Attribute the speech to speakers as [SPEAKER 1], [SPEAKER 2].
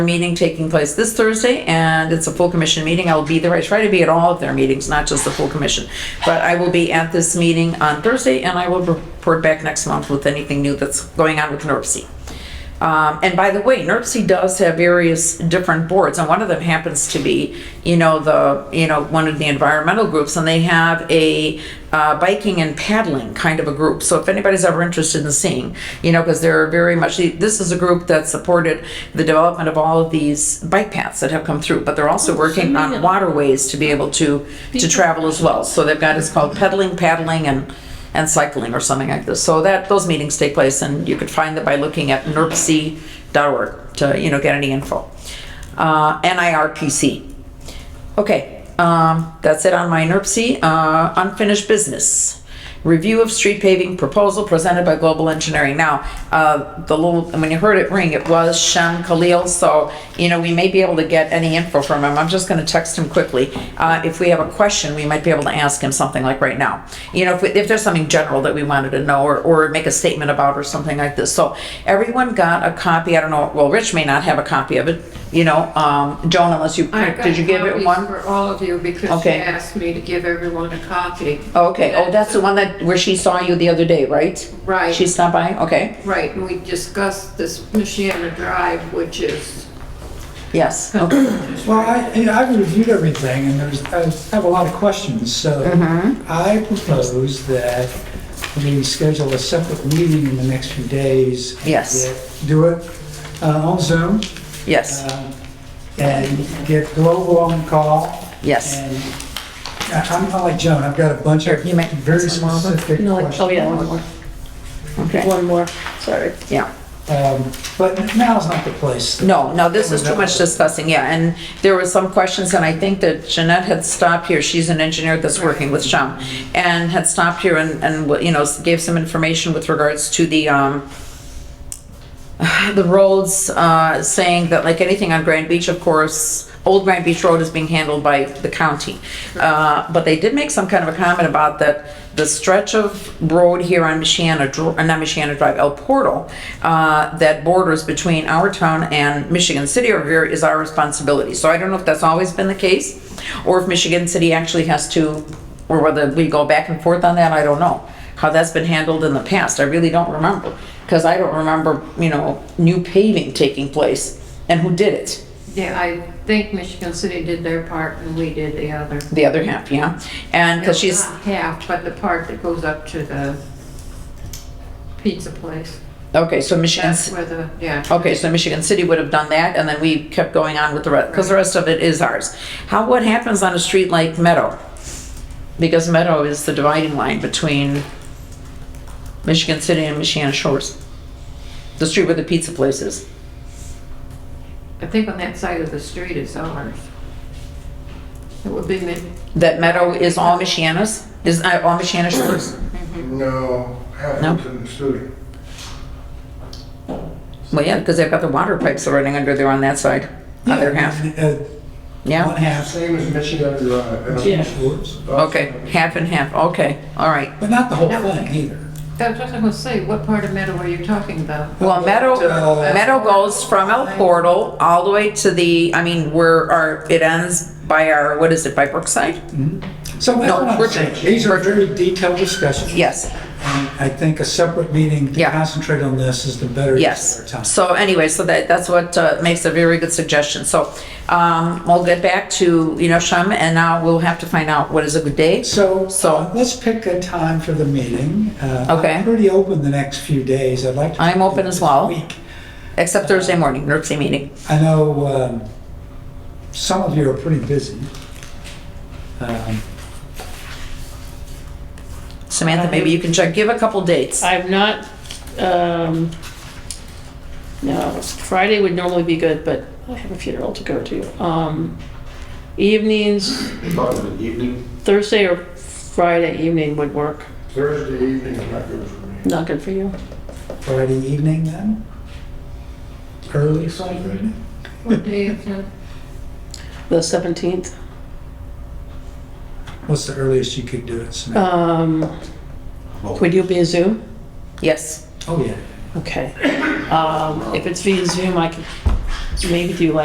[SPEAKER 1] meeting taking place this Thursday, and it's a full commission meeting. I'll be there. I try to be at all of their meetings, not just the full commission. But I will be at this meeting on Thursday, and I will report back next month with anything new that's going on with NERC. Um, and by the way, NERC does have various different boards, and one of them happens to be, you know, the, you know, one of the environmental groups, and they have a uh, biking and paddling kind of a group. So if anybody's ever interested in seeing, you know, because they're very much, this is a group that supported the development of all of these bike paths that have come through, but they're also working on waterways to be able to, to travel as well. So they've got, it's called pedaling, paddling, and and cycling or something like this. So that, those meetings take place and you could find them by looking at nerpc.org to, you know, get any info. Uh, NIRPC. Okay, um, that's it on my NERC. Uh, unfinished business. Review of street paving proposal presented by Global Engineering. Now, uh, the little, when you heard it ring, it was Shem Khalil, so, you know, we may be able to get any info from him. I'm just gonna text him quickly. Uh, if we have a question, we might be able to ask him something like right now. You know, if, we- if there's something general that we wanted to know or, or make a statement about or something like this. So everyone got a copy, I don't know, well, Rich may not have a copy of it, you know, um, Joan, unless you,
[SPEAKER 2] I got
[SPEAKER 1] did you give it
[SPEAKER 2] copies
[SPEAKER 1] one?
[SPEAKER 2] For all of you because she
[SPEAKER 1] Okay.
[SPEAKER 2] asked me to give everyone a copy.
[SPEAKER 1] Okay, oh, that's the one that, where she saw you the other day, right?
[SPEAKER 2] Right.
[SPEAKER 1] She stopped by, okay,
[SPEAKER 2] Right, and we discussed this Michiana Drive, which is,
[SPEAKER 1] yes, okay,
[SPEAKER 3] Well, I, you know, I've reviewed everything and there's, I have a lot of questions, so
[SPEAKER 1] Mm-hmm.
[SPEAKER 3] I propose that we schedule a separate meeting in the next few days.
[SPEAKER 1] Yes.
[SPEAKER 3] Get- Do it uh, on Zoom
[SPEAKER 1] yes,
[SPEAKER 3] um, and get Global on call.
[SPEAKER 1] Yes.
[SPEAKER 3] And I- I'm not like Joan, I've got a bunch of
[SPEAKER 1] you might-
[SPEAKER 3] very specific
[SPEAKER 4] No, like, oh yeah, one
[SPEAKER 3] questions.
[SPEAKER 4] more,
[SPEAKER 1] okay,
[SPEAKER 4] Uh, one more, sorry.
[SPEAKER 1] yeah.
[SPEAKER 3] Um, But now's not the place.
[SPEAKER 1] No, no, this is too much discussing, yeah, and there were some questions, and I think that Jeanette had stopped here, she's an engineer that's working with Shum, and had stopped here and, and, you know, gave some information with regards to the, um, the roads, uh, saying that like anything on Grand Beach, of course, Old Grand Beach Road is being handled by the county. Uh, but they did make some kind of a comment about that the stretch of road here on Michiana, Dr- uh, not Michiana Drive, El Portal, uh, that borders between our town and Michigan City over here is our responsibility. So I don't know if that's always been the case, or if Michigan City actually has to, or whether we go back and forth on that, I don't know how that's been handled in the past. I really don't remember because I don't remember, you know, new paving taking place and who did it.
[SPEAKER 2] yeah, I think Michigan City did their part and we did the other.
[SPEAKER 1] The other half, yeah. And because she's,
[SPEAKER 2] Not Half, but the part that goes up to the pizza place.
[SPEAKER 1] okay, so Michigan,
[SPEAKER 2] That's where the, yeah.
[SPEAKER 1] okay, so Michigan City would have done that and then we kept going on with the rest because the rest of it is ours. How, what happens on a street like Meadow? Because Meadow is the dividing line between Michigan City and Michiana Shores. The street where the pizza place is.
[SPEAKER 2] I think on that side of the street is ours. It would be, mi-
[SPEAKER 1] That Meadow is all Michiana's, is uh, all Michiana Shores.
[SPEAKER 5] No, Atherton City.
[SPEAKER 1] Well, yeah, because they've got the water pipes running under there on that side, other half,
[SPEAKER 3] Uh, One
[SPEAKER 1] yeah?
[SPEAKER 3] half,
[SPEAKER 5] Same as Michigan Drive.
[SPEAKER 4] Yeah.
[SPEAKER 3] Schwartz,
[SPEAKER 1] Okay, half and half, okay, all right.
[SPEAKER 3] but not the whole thing either.
[SPEAKER 2] that's what I was gonna say, what part of Meadow are you talking about?
[SPEAKER 1] Well, Meadow,
[SPEAKER 3] Uh,
[SPEAKER 1] Meadow goes from El Portal all the way to the, I mean, where our, it ends by our, what is it, by Brookside?
[SPEAKER 3] So that's
[SPEAKER 1] No,
[SPEAKER 3] what I'm
[SPEAKER 1] we're-
[SPEAKER 3] saying. These are very detailed discussions.
[SPEAKER 1] Yes,
[SPEAKER 3] And I think a separate meeting to
[SPEAKER 1] Yeah.
[SPEAKER 3] concentrate on this is the better use of our time.
[SPEAKER 1] yes. So anyway, so that, that's what uh, makes a very good suggestion. So, um, we'll get back to, you know, Shum, and now we'll have to find out what is a good day.
[SPEAKER 3] So,
[SPEAKER 1] So-
[SPEAKER 3] uh, let's pick a time for the meeting. Uh, I'm
[SPEAKER 1] Okay.
[SPEAKER 3] Pretty open the next few days. I'd like to.
[SPEAKER 1] I'm open as
[SPEAKER 3] this
[SPEAKER 1] well.
[SPEAKER 3] week.
[SPEAKER 1] Except Thursday morning, NERC meeting.
[SPEAKER 3] I know um, some of you are pretty busy. Um,
[SPEAKER 1] Samantha, maybe you can check, give a couple dates.
[SPEAKER 4] I'm not, um, no, Friday would normally be good, but I have a funeral to go to. Um, evenings,
[SPEAKER 6] Probably the evening.
[SPEAKER 4] Thursday or Friday evening would work.
[SPEAKER 5] Thursday evening is not good for me.
[SPEAKER 4] Not good for you.
[SPEAKER 3] Friday evening then? Early Friday evening?
[SPEAKER 2] What day is it?
[SPEAKER 4] The seventeenth,
[SPEAKER 3] What's the earliest you could do it? Samantha?
[SPEAKER 4] um, would you be a Zoom?
[SPEAKER 1] Yes,
[SPEAKER 3] Oh, yeah.
[SPEAKER 4] Okay. Um, if it's via Zoom, I can maybe do like